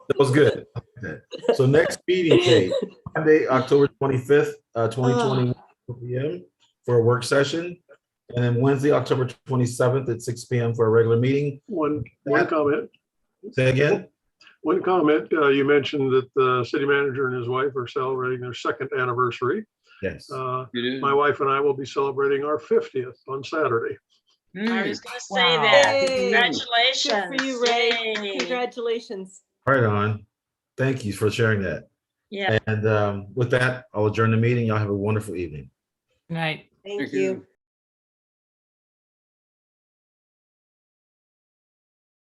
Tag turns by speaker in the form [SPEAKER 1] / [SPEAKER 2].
[SPEAKER 1] That was good. So next meeting date, Monday, October twenty-fifth, uh, twenty twenty, PM for a work session. And then Wednesday, October twenty-seventh at six PM for a regular meeting.
[SPEAKER 2] One, one
[SPEAKER 1] Yeah.
[SPEAKER 2] comment,
[SPEAKER 1] Say again?
[SPEAKER 2] one comment. Uh, you mentioned that the city manager and his wife are celebrating their second anniversary.
[SPEAKER 1] Yes.
[SPEAKER 2] Uh,
[SPEAKER 3] It is.
[SPEAKER 2] my wife and I will be celebrating our fiftieth on Saturday.
[SPEAKER 4] I
[SPEAKER 3] Mm.
[SPEAKER 4] was gonna say
[SPEAKER 5] Wow.
[SPEAKER 4] that.
[SPEAKER 6] Yay.
[SPEAKER 4] Congratulations.
[SPEAKER 6] Good for you, Ray.
[SPEAKER 4] Yay.
[SPEAKER 6] Congratulations.
[SPEAKER 1] Right on. Thank you for sharing that.
[SPEAKER 4] Yeah.
[SPEAKER 1] And um, with that, I'll adjourn the meeting. Y'all have a wonderful evening.
[SPEAKER 5] Right.
[SPEAKER 6] Thank you.